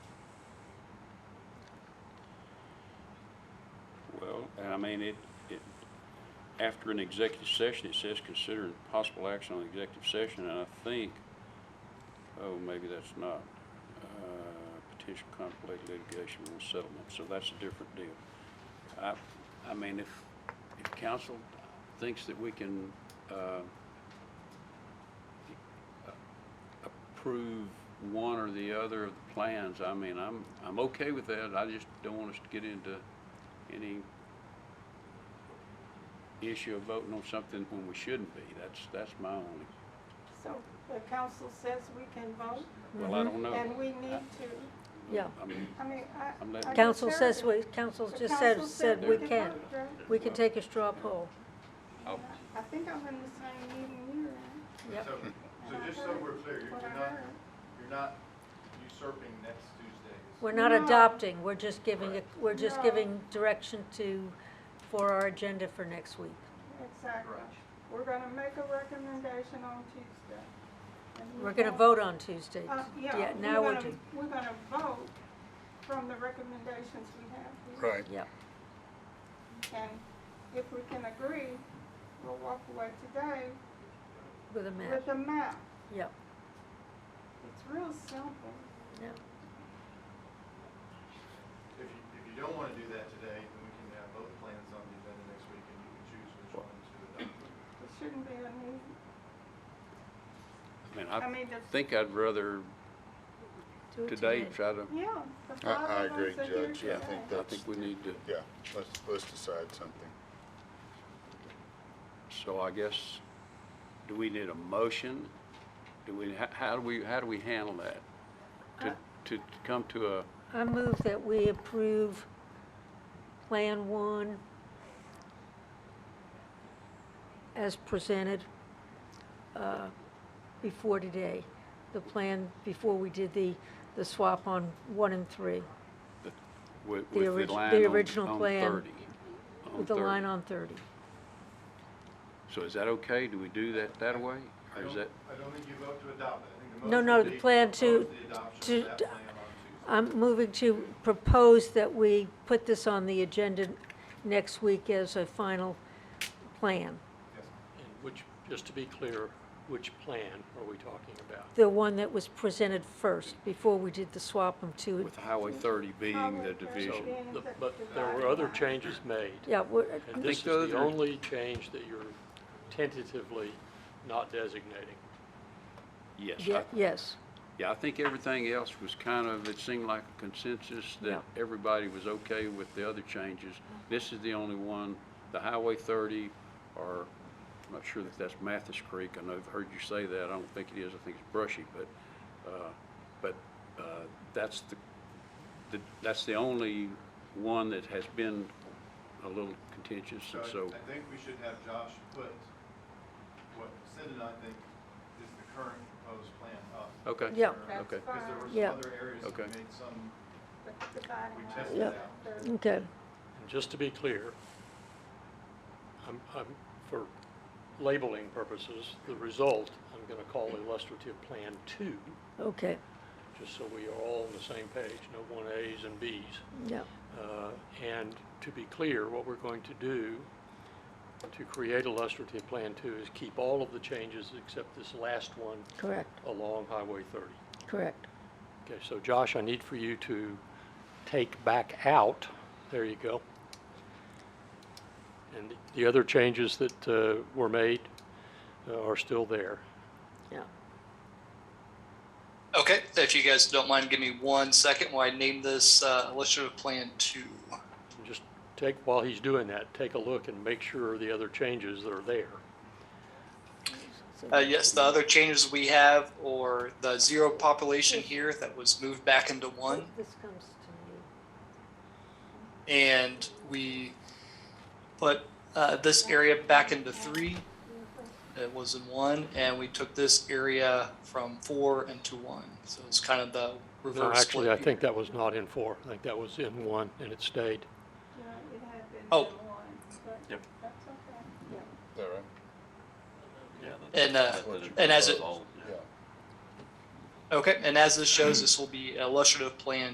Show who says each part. Speaker 1: I mean, it, it, after an executive session, it says consider possible action on executive session, and I think, oh, maybe that's not, uh, potential conflict litigation or settlement, so that's a different deal. I, I mean, if, if council thinks that we can, uh, approve one or the other of the plans, I mean, I'm, I'm okay with that, I just don't want us to get into any issue of voting on something when we shouldn't be, that's, that's my only,
Speaker 2: So the council says we can vote,
Speaker 1: well, I don't know.
Speaker 2: and we need to,
Speaker 3: Yeah.
Speaker 1: I mean,
Speaker 2: I mean, I.
Speaker 1: I'm letting-
Speaker 2: I
Speaker 3: Council
Speaker 2: just
Speaker 3: says
Speaker 2: heard
Speaker 3: we,
Speaker 2: it.
Speaker 3: council
Speaker 2: The
Speaker 3: just said,
Speaker 2: council
Speaker 3: said we
Speaker 2: can
Speaker 3: can.
Speaker 2: vote, Joe.
Speaker 3: We can take a straw poll.
Speaker 1: I'll-
Speaker 2: I think I'm in the same meeting you're in.
Speaker 3: Yep.
Speaker 4: So, so just so we're clear, you're
Speaker 2: What I
Speaker 4: you're not,
Speaker 2: heard.
Speaker 4: you're not usurping next Tuesday's.
Speaker 3: We're not
Speaker 2: No.
Speaker 3: adopting, we're just giving, a- we're just
Speaker 2: No.
Speaker 3: giving direction to, for our agenda for next week.
Speaker 2: Exactly. We're gonna make a recommendation on Tuesday. And we
Speaker 3: We're gonna
Speaker 2: won't-
Speaker 3: vote on Tuesday.
Speaker 2: Uh, yeah,
Speaker 3: now
Speaker 2: we're
Speaker 3: we're
Speaker 2: gonna,
Speaker 3: doing,
Speaker 2: we're gonna vote from the recommendations we have. here.
Speaker 5: Right.
Speaker 3: yep,
Speaker 2: And if we can agree, we'll walk away today
Speaker 3: with a
Speaker 2: with
Speaker 3: map,
Speaker 2: a map.
Speaker 3: yep,
Speaker 2: It's real simple.
Speaker 3: yep.
Speaker 4: If you, if you don't wanna do that today, then we can have both plans on the agenda next week and you can choose which one to adopt.
Speaker 2: It shouldn't be a need.
Speaker 1: I mean,
Speaker 2: I
Speaker 1: I
Speaker 2: mean, it's,
Speaker 1: think I'd rather
Speaker 3: Do it
Speaker 1: today try to,
Speaker 2: yeah. the
Speaker 5: I, I
Speaker 2: five of
Speaker 5: agree,
Speaker 2: us are here
Speaker 5: Judge, I
Speaker 2: today.
Speaker 5: think
Speaker 1: I
Speaker 5: that's,
Speaker 1: think we need to,
Speaker 5: yeah, let's, let's decide something.
Speaker 1: so I guess, do we need a motion? Do we, how, how do we, how do we handle that?
Speaker 3: Uh,
Speaker 1: To, to to come to a,
Speaker 3: I move that we approve Plan One as presented uh, before today, the plan before we did the, the swap on one and three,
Speaker 1: with,
Speaker 3: The
Speaker 1: with the
Speaker 3: orig- the
Speaker 1: line on,
Speaker 3: original
Speaker 1: on
Speaker 3: plan
Speaker 1: thirty? on
Speaker 3: with the line
Speaker 1: 30.
Speaker 3: on 30.
Speaker 1: So is that okay? Do we do that that way?
Speaker 4: I
Speaker 1: Or is
Speaker 4: don't-
Speaker 1: that,
Speaker 4: I don't think you vote to adopt it, I think the
Speaker 3: No,
Speaker 4: motion
Speaker 3: no,
Speaker 4: would
Speaker 3: the
Speaker 4: be
Speaker 3: plan
Speaker 4: propose
Speaker 3: to-
Speaker 4: the adoption of
Speaker 3: to-
Speaker 4: that
Speaker 3: to-
Speaker 4: plan on Tuesday.
Speaker 3: I'm moving to propose that we put this on the agenda next week as a final plan,
Speaker 4: Yes.
Speaker 6: And which, just to be clear, which plan are we talking about?
Speaker 3: the one that was presented first, before we did the swap on two.
Speaker 1: with Highway thirty being the
Speaker 2: Highway 30
Speaker 1: division?
Speaker 2: being
Speaker 6: The-
Speaker 2: the
Speaker 6: But there were
Speaker 2: dividing
Speaker 6: other
Speaker 2: line.
Speaker 6: changes made.
Speaker 3: Yeah, we're-
Speaker 6: And
Speaker 1: I
Speaker 6: this is
Speaker 1: think those
Speaker 6: the
Speaker 1: are-
Speaker 6: only change that you're tentatively not designating.
Speaker 1: Yes, I-
Speaker 3: yeah, yes.
Speaker 1: yeah, I think everything else was kind of, it seemed like a consensus that everybody was okay with the other changes. This is the only one, the Highway thirty, or, I'm not sure that that's Mathis Creek, I know I've heard you say that, I don't think it is, I think it's Brushy, but, uh, but, uh, that's the, the- that's the only one that has been a little contentious,
Speaker 4: So
Speaker 1: and
Speaker 4: I-
Speaker 1: so.
Speaker 4: I think we should have Josh put what Sid and I think is the current proposed plan up.
Speaker 1: Okay.
Speaker 3: Yeah.
Speaker 2: That's
Speaker 1: Okay.
Speaker 4: Because there were
Speaker 2: fine.
Speaker 4: some
Speaker 3: Yeah.
Speaker 4: other areas that
Speaker 1: Okay.
Speaker 4: made some,
Speaker 2: The dividing
Speaker 4: we
Speaker 2: line.
Speaker 4: tested
Speaker 3: Yeah.
Speaker 4: out.
Speaker 2: The-
Speaker 3: Okay,
Speaker 6: And just to be clear, I'm, I'm, for labeling purposes, the result, I'm going to call illustrative Plan Two,
Speaker 3: okay,
Speaker 6: just so we are all on the same page, no one As and Bs.
Speaker 3: yeah,
Speaker 6: Uh, And to be clear, what we're going to do to create illustrative Plan Two is keep all of the changes except this last one
Speaker 3: correct,
Speaker 6: along Highway 30.
Speaker 3: correct.
Speaker 6: Okay, so Josh, I need for you to take back out, there you go. And the other changes that uh, were made uh, are still there.
Speaker 3: Yeah.
Speaker 7: Okay, if you guys don't mind, give me one second while I name this uh, illustrative plan two.
Speaker 6: And Just take, while he's doing that, take a look and make sure the other changes that are there.
Speaker 3: So-
Speaker 7: Uh, yes, the other changes we have or the zero population here that was moved back into one.
Speaker 3: This comes to
Speaker 7: And we put uh, this area back into three. It was in one, and we took this area from four into one. So it's kind of the reverse.
Speaker 6: No, actually,
Speaker 7: split
Speaker 6: I
Speaker 7: here.
Speaker 6: think that was not in four. I think that was in one, and it stayed.
Speaker 2: Yeah, it had been
Speaker 7: Oh.
Speaker 2: in one, but
Speaker 1: Yep.
Speaker 2: that's okay.
Speaker 5: Is that right?
Speaker 7: And uh, and as it
Speaker 5: Yeah.
Speaker 7: okay, and as this shows, this will be illustrative plan